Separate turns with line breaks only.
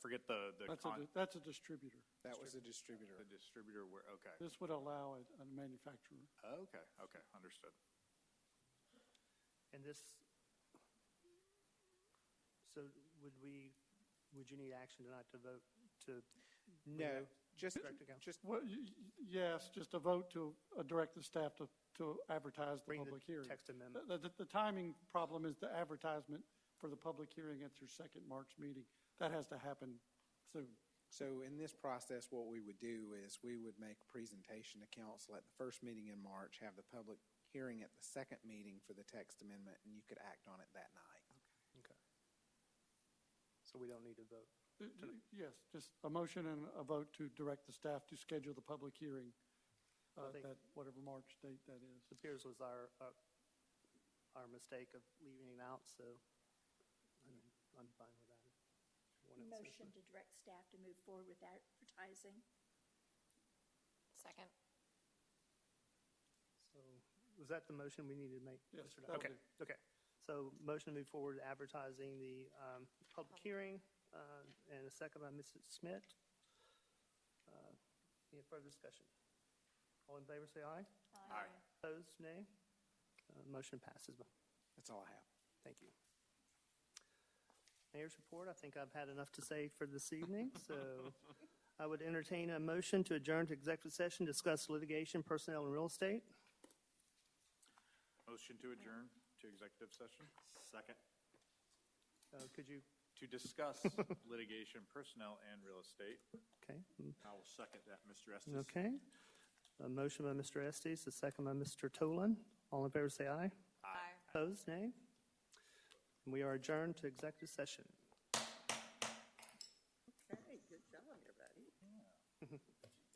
forget the, the
That's a,
con-
di- that's a distributor.
That was the distributor.
the distributor where, okay.
This would allow a, a manufacturer.
Okay, okay, understood.
And this, so would we, would you need action tonight to vote to?
No, just,
Director Gale.
just
Well, y- y- yes, just a vote to uh, direct the staff to, to advertise the
Bring the
public hearing.
text amendment.
The, the- the timing problem is the advertisement for the public hearing at your second March meeting. That has to happen soon.
So in this process, what we would do is we would make a presentation to council at the first meeting in March, have the public hearing at the second meeting for the text amendment, and you could act on it that night.
Okay. So we don't need to vote.
Uh, y- Yes, just a motion and a vote to direct the staff to schedule the public hearing, uh,
think-
that, whatever March date that is.
It appears was our, our- our mistake of leaving it out, so I'm, I'm fine with that. One else is-
Motion to direct staff to move forward with advertising.
Second.
So was that the motion we needed to make?
Yes,
Mr.
that
Dodd? Okay,
would
okay. So motion to move forward advertising the um, public hearing uh, and a second by Mrs. Smith. Uh, Any further discussion? All in favor, say aye.
Aye.
Opposed, nay. Uh, Motion passes.
That's all I have.
Thank you. Mayor's report, I think I've had enough to say for this evening, so I would entertain a motion to adjourn to executive session, discuss litigation, personnel, and real estate.
Motion to adjourn to executive session? Second.
Uh, Could you,
To discuss litigation, personnel, and real estate.
okay,
I will second that, Mr. Estes.
Okay. A motion by Mr. Estes, a second by Mr. Tolan. All in favor, say aye.
Aye.
Opposed, nay. We are adjourned to executive session.
Okay, good job, everybody.